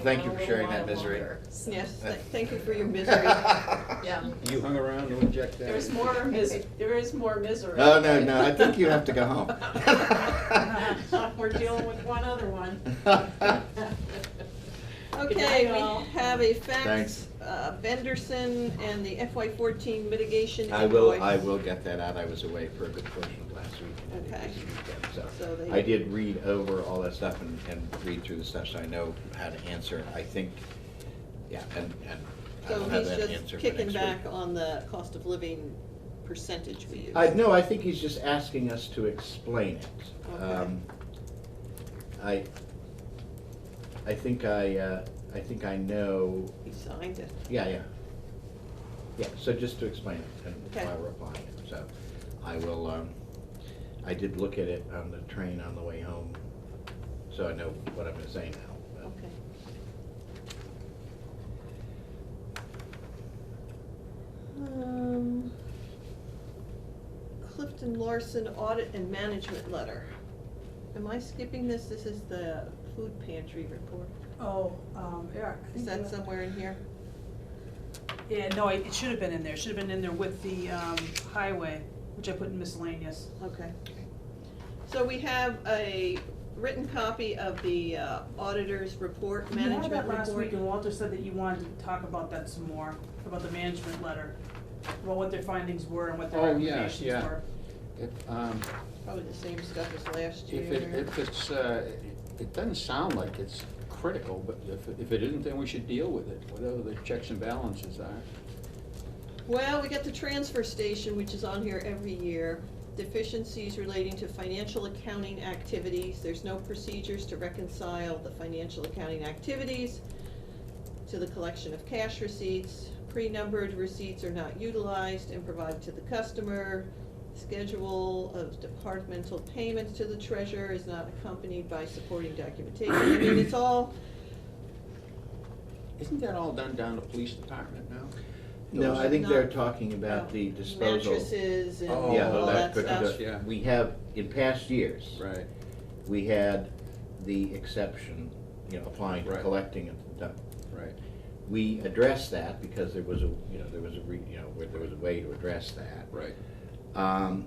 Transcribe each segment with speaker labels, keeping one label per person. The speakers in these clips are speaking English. Speaker 1: thank you
Speaker 2: a
Speaker 1: for sharing
Speaker 2: little while
Speaker 1: that misery.
Speaker 2: longer, so.
Speaker 3: Yes, th- thank you for your misery.
Speaker 1: Yeah.
Speaker 3: You
Speaker 4: hung around to inject
Speaker 3: There's more mis, there is more misery.
Speaker 1: No, no, no, I think you have to go home.
Speaker 3: We're dealing with one other one.
Speaker 2: night,
Speaker 3: Okay,
Speaker 2: all.
Speaker 3: we have a fax,
Speaker 1: Thanks.
Speaker 3: uh, Benderson and the FY fourteen mitigation
Speaker 1: I will,
Speaker 3: invoice.
Speaker 1: I will get that out. I was away for a good portion of last week. and I
Speaker 3: Okay.
Speaker 1: did this weekend,
Speaker 3: So they-
Speaker 1: So I did read over all that stuff and, and read through the stuff, so I know how to answer. I think, yeah, and, and
Speaker 3: So
Speaker 1: I'll have
Speaker 3: he's
Speaker 1: that
Speaker 3: just
Speaker 1: answer for
Speaker 3: kicking
Speaker 1: next
Speaker 3: back
Speaker 1: week.
Speaker 3: on the cost of living percentage we use.
Speaker 1: I, no, I think he's just asking us to explain it.
Speaker 3: Okay.
Speaker 1: Um, I, I think I, uh, I think I know,
Speaker 3: He signed it.
Speaker 1: yeah, yeah. Yeah, so just to explain it
Speaker 3: Okay.
Speaker 1: and why we're applying it, so I will, um, I did look at it on the train on the way home, so I know what I'm gonna say now. but-
Speaker 3: Okay. Um, Clifton Larson Audit and Management Letter. Am I skipping this? This is the food pantry report.
Speaker 2: Oh, um, yeah. I
Speaker 3: Is
Speaker 2: think
Speaker 3: that
Speaker 2: you-
Speaker 3: somewhere in here?
Speaker 2: Yeah, no, it it should have been in there, should have been in there with the, um, highway, which I put in miscellaneous.
Speaker 3: Okay. So we have a written copy of the uh, auditor's report,
Speaker 2: You had
Speaker 3: management
Speaker 2: that
Speaker 3: report.
Speaker 2: last week, and Walter said that you wanted to talk about that some more, about the management letter, about what their findings were and what their
Speaker 4: Oh, yeah,
Speaker 2: recommendations
Speaker 4: yeah.
Speaker 2: were.
Speaker 4: If, um,
Speaker 3: Probably the same stuff as last year.
Speaker 4: if it, if it's, uh, it- it doesn't sound like it's critical, but if, if it isn't, then we should deal with it, whatever the checks and balances are.
Speaker 3: Well, we got the transfer station, which is on here every year. Deficiencies relating to financial accounting activities. There's no procedures to reconcile the financial accounting activities to the collection of cash receipts. Pre-numbered receipts are not utilized and provided to the customer. Schedule of departmental payments to the treasurer is not accompanied by supporting documentation. I mean, it's all,
Speaker 4: Isn't that all done down the police department now?
Speaker 1: No,
Speaker 4: Those-
Speaker 1: I think
Speaker 3: Not-
Speaker 1: they're talking about the
Speaker 3: uh,
Speaker 1: disposal.
Speaker 3: Mattresses and
Speaker 4: Oh,
Speaker 1: Yeah,
Speaker 3: all that
Speaker 1: that
Speaker 3: stuff.
Speaker 1: could,
Speaker 4: stuff. Yeah.
Speaker 1: we have, in past years.
Speaker 4: Right,
Speaker 1: we had the exception, you know, applying to
Speaker 4: Right.
Speaker 1: collecting at the dump.
Speaker 4: right.
Speaker 1: We addressed that because there was a, you know, there was a, re- you know, where there was a way to address that.
Speaker 4: Right.
Speaker 1: Um,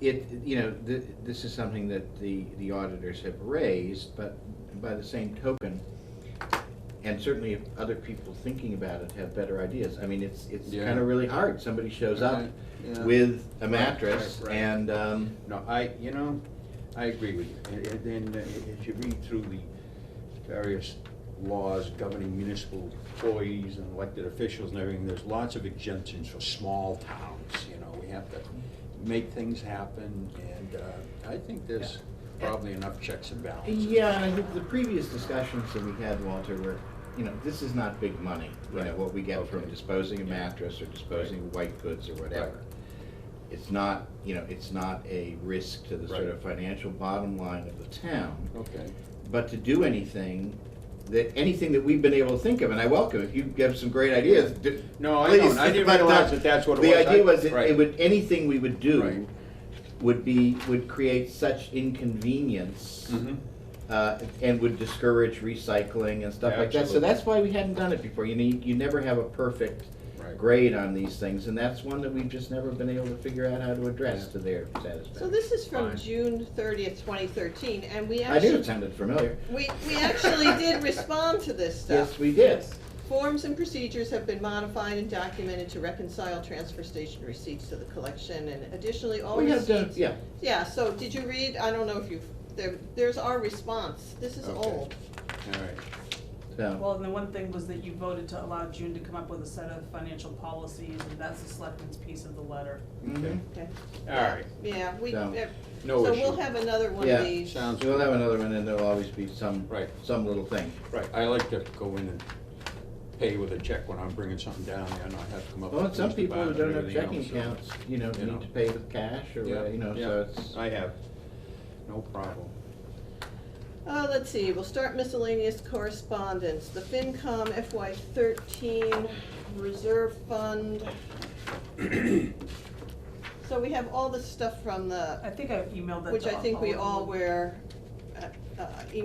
Speaker 1: It, you know, th- this is something that the, the auditors have raised, but by the same token, and certainly if other people thinking about it have better ideas, I mean, it's, it's
Speaker 4: Yeah.
Speaker 1: kind of really hard. Somebody shows up
Speaker 4: Right, yeah.
Speaker 1: with a
Speaker 4: Right,
Speaker 1: mattress
Speaker 4: right, right.
Speaker 1: and, um,
Speaker 4: No, I, you know, I agree with you. And- And then uh, as you read through the various laws governing municipal employees and elected officials and everything, there's lots of exemptions for small towns, you know, we have to make things happen, and uh, I think there's probably enough checks and balances.
Speaker 1: Yeah, and I think the previous discussions that we had, Walter, were, you know, this is not big money. You know,
Speaker 4: Right.
Speaker 1: what we get from
Speaker 4: Okay.
Speaker 1: disposing a
Speaker 4: Yeah.
Speaker 1: mattress or disposing of white goods or
Speaker 4: Right.
Speaker 1: whatever. It's not, you know, it's not a risk to the sort
Speaker 4: Right.
Speaker 1: of financial bottom line of the town.
Speaker 4: Okay,
Speaker 1: But to do anything, that, anything that we've been able to think of, and I welcome, if you have some great ideas, d-
Speaker 4: No, I
Speaker 1: please,
Speaker 4: don't. I didn't
Speaker 1: but the-
Speaker 4: realize that that's what it was.
Speaker 1: The idea
Speaker 4: I-
Speaker 1: was, it- it
Speaker 4: right.
Speaker 1: would, anything we would do
Speaker 4: Right.
Speaker 1: would be, would create such inconvenience
Speaker 4: Mhm.
Speaker 1: uh, and would discourage recycling and stuff like that. So
Speaker 4: Absolutely.
Speaker 1: that's why we hadn't done it before. You know, you- you never have a perfect
Speaker 4: Right.
Speaker 1: grade on these things, and that's one that we've just never been able to figure out how to address
Speaker 4: Yeah.
Speaker 1: to their satisfaction.
Speaker 3: So this is from
Speaker 1: Fine.
Speaker 3: June thirtieth, twenty thirteen, and we
Speaker 1: I knew
Speaker 3: actually,
Speaker 1: it sounded familiar.
Speaker 3: we, we actually did respond to this stuff.
Speaker 1: Yes, we did.
Speaker 3: Forms and procedures have been modified and documented to reconcile transfer station receipts to the collection, and additionally, all
Speaker 1: We
Speaker 3: receipts.
Speaker 1: have done, yeah.
Speaker 3: Yeah, so did you read, I don't know if you've, there, there's our response, this is
Speaker 4: Okay.
Speaker 3: old.
Speaker 4: All right.
Speaker 1: So,
Speaker 2: Well, and the one thing was that you voted to allow June to come up with a set of financial policies, and that's the selectmen's piece of the letter.
Speaker 1: mhm.
Speaker 3: Okay.
Speaker 4: All right,
Speaker 3: Yeah, we,
Speaker 1: So,
Speaker 3: eh,
Speaker 4: no
Speaker 3: so we'll
Speaker 4: issue.
Speaker 3: have another one
Speaker 1: Yeah,
Speaker 3: of these.
Speaker 4: sounds-
Speaker 1: we'll have another one, and there'll always be some,
Speaker 4: Right.
Speaker 1: some little thing.
Speaker 4: Right, I like to go in and pay with a check when I'm bringing something down there, and I have to come up with.
Speaker 1: Well, and some
Speaker 4: things to
Speaker 1: people
Speaker 4: buy
Speaker 1: who
Speaker 4: and
Speaker 1: don't have
Speaker 4: everything
Speaker 1: checking
Speaker 4: else, so-
Speaker 1: accounts, you know,
Speaker 4: you know.
Speaker 1: need to pay with cash or,
Speaker 4: Yeah,
Speaker 1: uh, you know,
Speaker 4: yeah,
Speaker 1: so it's.
Speaker 4: I have, no problem.
Speaker 3: Uh, let's see, we'll start miscellaneous correspondence, the FinCom FY thirteen reserve fund. So we have all this stuff from
Speaker 2: I
Speaker 3: the,
Speaker 2: think I emailed that to all.
Speaker 3: which I think we
Speaker 2: of
Speaker 3: all
Speaker 2: you.
Speaker 3: were, uh, uh,